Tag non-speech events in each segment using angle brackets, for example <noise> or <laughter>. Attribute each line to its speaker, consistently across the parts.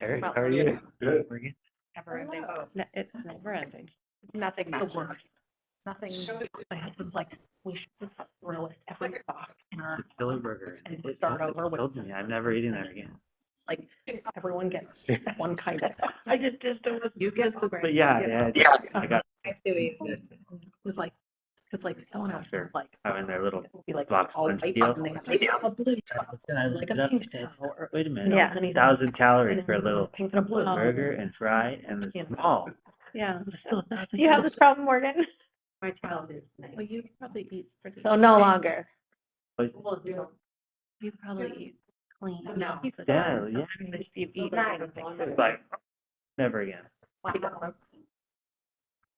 Speaker 1: Eric,
Speaker 2: Well,
Speaker 1: how are you?
Speaker 3: Good.
Speaker 1: Morgan?
Speaker 2: Never ending.
Speaker 4: Hello.
Speaker 2: No, It's never ending. Nothing matches.
Speaker 4: work.
Speaker 2: Nothing.
Speaker 4: Sure.
Speaker 2: My husband's like, we should just throw it every thought in our,
Speaker 1: Philly burger.
Speaker 2: And
Speaker 1: It's
Speaker 2: start
Speaker 1: not-
Speaker 2: over with-
Speaker 1: told me, I'm never eating that again.
Speaker 2: like, everyone gets one kind of. I just, just don't.
Speaker 4: You guess the brand.
Speaker 1: But yeah, yeah, yeah, I
Speaker 2: <laughs>
Speaker 1: got,
Speaker 4: I see what you
Speaker 2: It
Speaker 4: said.
Speaker 2: was like, it's like someone else
Speaker 1: Sure.
Speaker 2: was like,
Speaker 1: I'm in their little
Speaker 2: it would be like
Speaker 1: Box
Speaker 2: all
Speaker 1: lunch
Speaker 2: white
Speaker 1: deal.
Speaker 2: and they have like a blue top,
Speaker 1: And I looked
Speaker 2: like
Speaker 1: it
Speaker 2: a
Speaker 1: up and
Speaker 2: pink
Speaker 1: said,
Speaker 2: towel or.
Speaker 1: wait a minute.
Speaker 2: Yeah.
Speaker 1: Thousand calories
Speaker 2: and
Speaker 1: for a little
Speaker 2: Pink and a blue.
Speaker 1: burger and fry and it's
Speaker 2: Yeah.
Speaker 1: small.
Speaker 2: Yeah.
Speaker 4: You have this problem, Morgan?
Speaker 2: My child is. Well, you probably eat pretty.
Speaker 4: <laughs> Oh, no longer.
Speaker 1: But
Speaker 2: You probably eat clean.
Speaker 4: No.
Speaker 2: He's a-
Speaker 1: Yeah, yeah.
Speaker 2: If you've eaten
Speaker 4: Nice.
Speaker 2: anything.
Speaker 1: it's like, never again.
Speaker 2: Wow.
Speaker 4: um,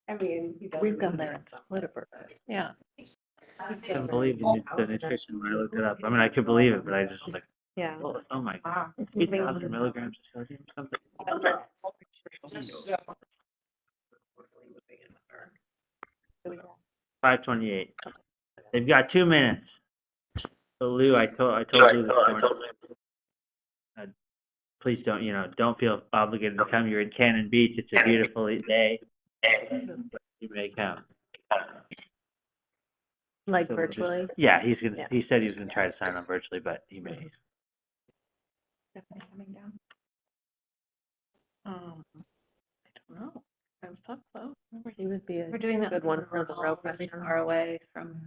Speaker 4: I mean.
Speaker 2: We've done that at Whataburger. Yeah.
Speaker 1: I couldn't believe the nu- the nutrition when I looked it up. I mean, I could believe it, but I just was like,
Speaker 4: Yeah.
Speaker 1: oh oh my,
Speaker 2: Wow.
Speaker 1: eight thousand milligrams of sodium or something. Five twenty-eight. They've got two minutes. So Lou, I told, I told Lou this morning. Uh, Please don't, you know, don't feel obligated to come. You're in Cannon Beach. It's a beautiful day. You may come. So we'll
Speaker 4: Like
Speaker 1: do-
Speaker 4: virtually.
Speaker 1: Yeah, he's gonna,
Speaker 4: Yeah.
Speaker 1: he said he's gonna try to sign on virtually, but he may.
Speaker 2: Definitely coming down. Um, I don't know. I was so close. Remember he would be a
Speaker 4: We're doing that
Speaker 2: good one for the road, really far away from.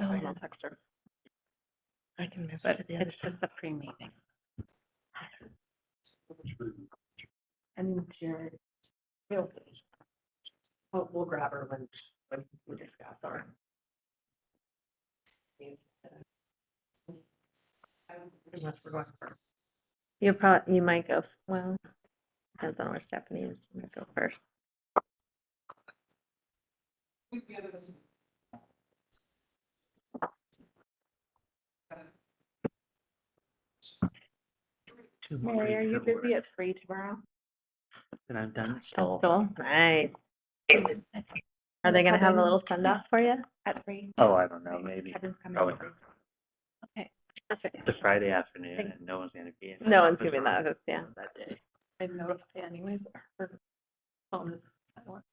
Speaker 4: Oh,
Speaker 2: I
Speaker 4: no.
Speaker 2: don't texture.
Speaker 4: I can miss
Speaker 2: But it's just a pre-meeting. And Jared. We'll, we'll- we'll grab her when, when we discuss our. Unless we're going for.
Speaker 4: You probably, you might go, f- well, depends on where Stephanie is, you might go first.
Speaker 2: Mary, are you
Speaker 1: Somewhere.
Speaker 2: busy at three tomorrow?
Speaker 1: And I'm done. So
Speaker 4: Cool, nice. Are they gonna have a little send off for you?
Speaker 2: At three?
Speaker 1: Oh, I don't know, maybe Oh,
Speaker 2: Kevin's coming
Speaker 1: Probably
Speaker 2: over.
Speaker 1: the Friday afternoon and no one's gonna be in.
Speaker 4: No one's
Speaker 1: There's
Speaker 4: giving
Speaker 1: no-
Speaker 4: that, yeah.
Speaker 1: That day.
Speaker 2: I notified anyways, her phone is. silent.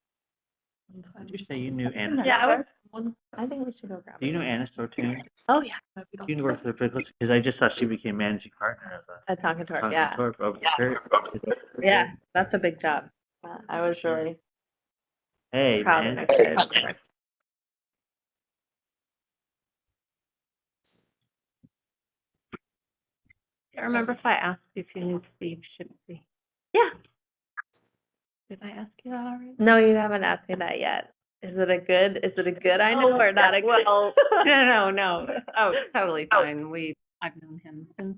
Speaker 1: Did you say you knew Anna?
Speaker 4: Yeah, I
Speaker 2: Another
Speaker 4: was-
Speaker 2: One,
Speaker 4: I think we should go grab
Speaker 1: Do you
Speaker 4: it.
Speaker 1: know Anna Sortune?
Speaker 4: Oh, yeah,
Speaker 2: but we don't-
Speaker 1: Universal Because I just saw she became managing partner of the
Speaker 4: at Tonkin Tour,
Speaker 1: Concord
Speaker 4: yeah,
Speaker 1: Corp over here.
Speaker 4: yeah, that's a big job. Uh, I was really
Speaker 1: Hey,
Speaker 4: proud of
Speaker 1: man.
Speaker 4: my kids.
Speaker 2: I remember if I asked if you knew Steve shouldn't be.
Speaker 4: Yeah.
Speaker 2: Did I ask you that already?
Speaker 4: No, you haven't asked me that yet. Is it a good, is it a good I know or not a good? <laughs>
Speaker 2: No, no, no. Oh, it's totally fine. We, I've known him since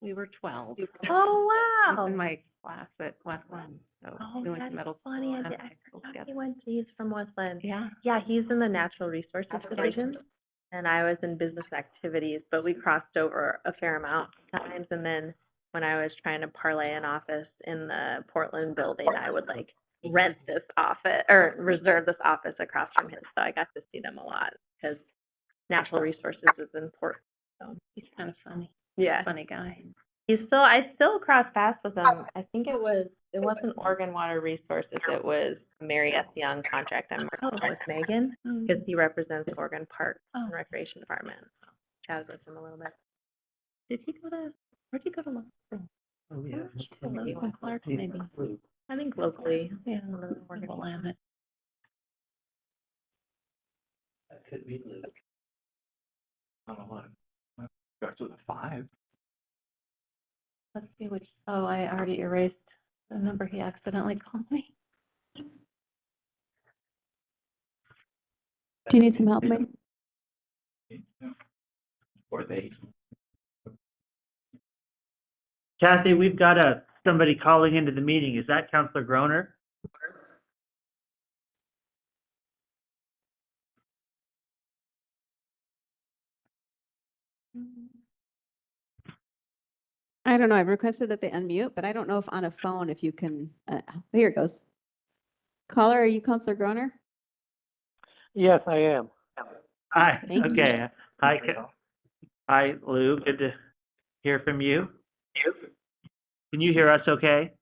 Speaker 2: we were twelve. He
Speaker 4: Oh,
Speaker 2: was
Speaker 4: wow.
Speaker 2: In my class at Westland, so
Speaker 4: Oh,
Speaker 2: we went
Speaker 4: that's
Speaker 2: to middle. school
Speaker 4: funny. I
Speaker 2: and
Speaker 4: did- I
Speaker 2: high school together.
Speaker 4: He went, he's from Westland.
Speaker 2: Yeah.
Speaker 4: Yeah, he's in the natural resources
Speaker 2: Natural
Speaker 4: division. And I was in business activities, but we crossed over a fair amount of times. And then when I was trying to parlay an office in the Portland building, I would like rent this office or reserve this office across from him. So I got to see them a lot because natural resources is important.
Speaker 2: He's kind of funny,
Speaker 4: Yeah.
Speaker 2: funny guy.
Speaker 4: He's still, I still cross paths with him. I think it was, it wasn't Oregon Water Resources. It was Mary S. Young contract I'm working on with Megan
Speaker 2: Mm.
Speaker 4: because he represents Oregon Park and
Speaker 2: Oh.
Speaker 4: Recreation Department. Chat with him a little bit. Did he go to, where'd he go to? law school?
Speaker 1: Oh,
Speaker 2: Even Clark, maybe.
Speaker 4: I think locally.
Speaker 2: Yeah.
Speaker 4: I don't know, Oregon.
Speaker 2: Willamette.
Speaker 3: Could be Luke. I don't know. Starts with a five.
Speaker 2: Let's see which, oh, I already erased the number he accidentally called me.
Speaker 5: Do you need some help, Mary?
Speaker 3: Or they.
Speaker 1: Kathy, we've got a, somebody calling into the meeting. Is that Counselor Groner?
Speaker 5: I don't know. I've requested that they unmute, but I don't know if on a phone, if you can, uh, here it goes. Caller, are you Counselor Groner?
Speaker 6: Yes, I am.
Speaker 1: Hi,
Speaker 5: Thank you.
Speaker 1: okay. Hi, Ca- hi, Lou. Good to hear from you. Can you hear us okay?